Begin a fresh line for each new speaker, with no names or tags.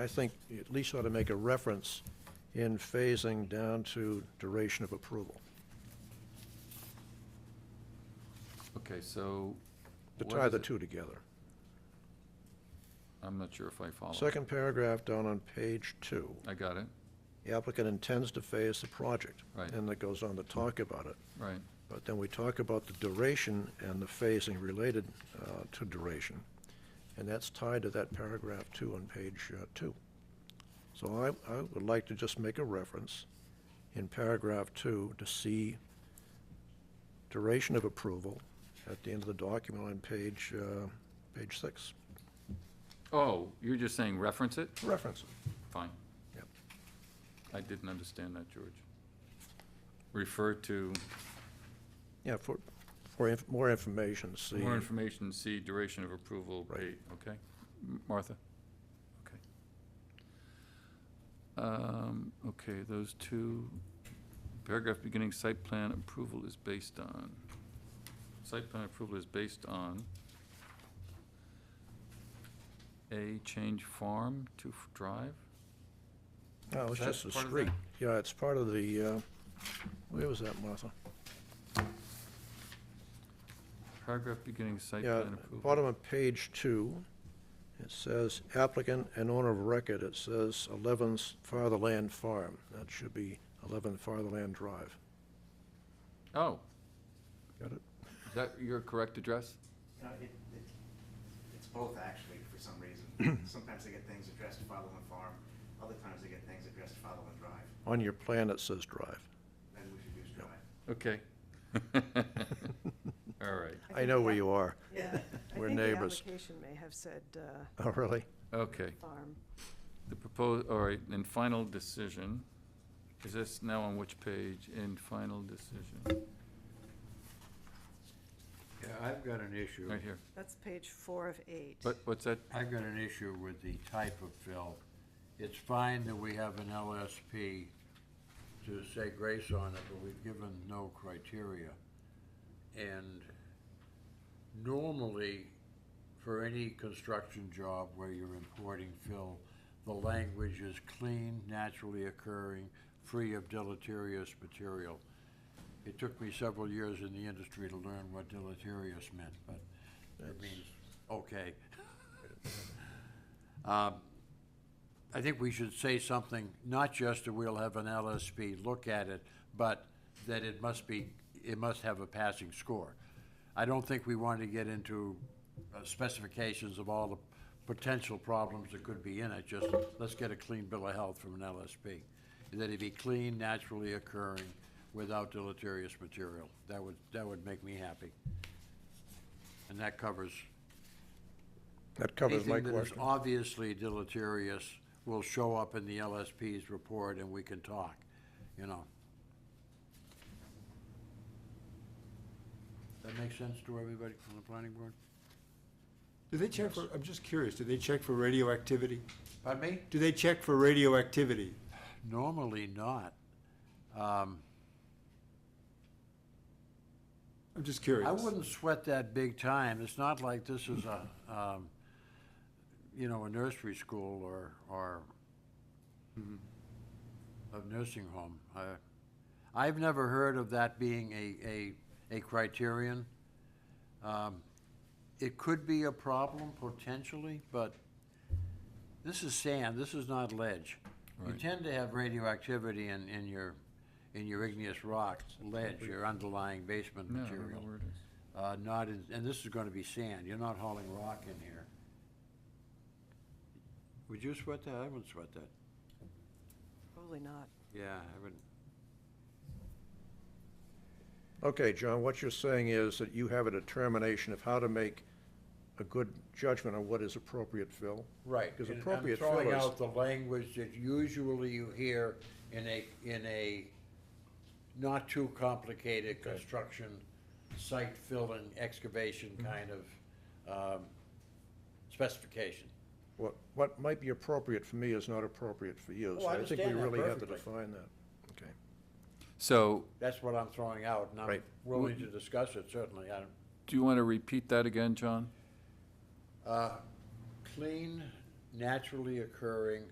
I think you at least ought to make a reference in phasing down to duration of approval.
Okay, so.
To
what
tie
is
the
it?
two together.
I'm not sure if I follow.
Second paragraph down on page two,
I got it,
the applicant intends to phase the project.
Right.
And that goes on to talk about it.
right.
But then we talk about the duration and the phasing related uh, to duration, and that's tied to that paragraph two on page uh, two. So I, I would like to just make a reference in paragraph two to see duration of approval at the end of the document on page, uh, page six.
Oh, you're just saying reference it?
Reference.
Fine.
Yep.
I didn't understand that, George. Refer to
Yeah, for, for inf- more information, see.
more information, see duration of approval,
Right.
date, okay? M- Martha? Okay. Um, okay, those two, paragraph beginning, site plan approval is based on. Site plan approval is based on A, change farm to f- drive?
No, Oh, it's
Is that
just a
part of
street.
that?
Yeah, it's part of the, uh, where was that, Martha?
Paragraph beginning, site
Yeah,
plan approval.
bottom of page two, it says applicant and owner of record, it says 11 Fartherland Farm. That should be 11 Fartherland Drive.
Oh,
Got it?
is that your correct address?
No, it, it, it's both actually, for some reason. Sometimes they get things addressed to Fatherland Farm, other times they get things addressed to Fatherland Drive,
On your plan, it says drive.
then we should use Drive.
Okay. All right,
I know where you are.
Yeah.
We're
I
neighbors.
think the application may have said uh,
Oh, really?
okay.
farm.
The proposed, all right, and final decision, is this now on which page, in final decision?
Yeah, I've got an issue.
Right here.
That's page four of eight.
What, what's that?
I've got an issue with the type of fill. It's fine that we have an LSP to say grace on it, but we've given no criteria. And normally, for any construction job where you're importing fill, the language is clean, naturally occurring, free of deleterious material. It took me several years in the industry to learn what deleterious meant, but it means, okay. Um, I think we should say something, not just that we'll have an LSP look at it, but that it must be, it must have a passing score. I don't think we want to get into uh, specifications of all the potential problems that could be in it, just let's get a clean bill of health from an LSP. That it be clean, naturally occurring, without deleterious material. That would, that would make me happy. And that covers
That covers my
Anything that is
question.
obviously deleterious will show up in the LSP's report and we can talk, you know. That make sense to everybody from the planning board?
Do they check for, I'm just curious, do they check for radioactivity?
Pardon me?
Do they check for radioactivity?
Normally not. Um,
I'm just curious.
I wouldn't sweat that big time. It's not like this is a, um, you know, a nursery school or, or a nursing home. I, I've never heard of that being a, a, a criterion. Um, it could be a problem potentially, but this is sand, this is not ledge. You
Right.
tend to have radioactivity in, in your, in your igneous rock, ledge, your underlying basement
No, I don't know
material.
where it is.
Uh, not in, and this is gonna be sand, you're not hauling rock in here. Would you sweat that? I wouldn't sweat that.
Probably not.
Yeah, I wouldn't.
Okay, John, what you're saying is that you have a determination of how to make a good judgment on what is appropriate fill?
Right.
Because
and I'm
appropriate fill
Throwing
is-
out the language that usually you hear in a, in a not too complicated construction, site filling, excavation
Mm-hmm.
kind of, um, specification.
What, what might be appropriate for me is not appropriate for you.
Oh,
So
I
think we
understand that
really have to
perfectly.
define that. Okay.
So,
That's what I'm throwing out, and I'm
Right.
willing to discuss it, certainly, I don't.
do you want to repeat that again, John?
Uh, Clean, naturally occurring,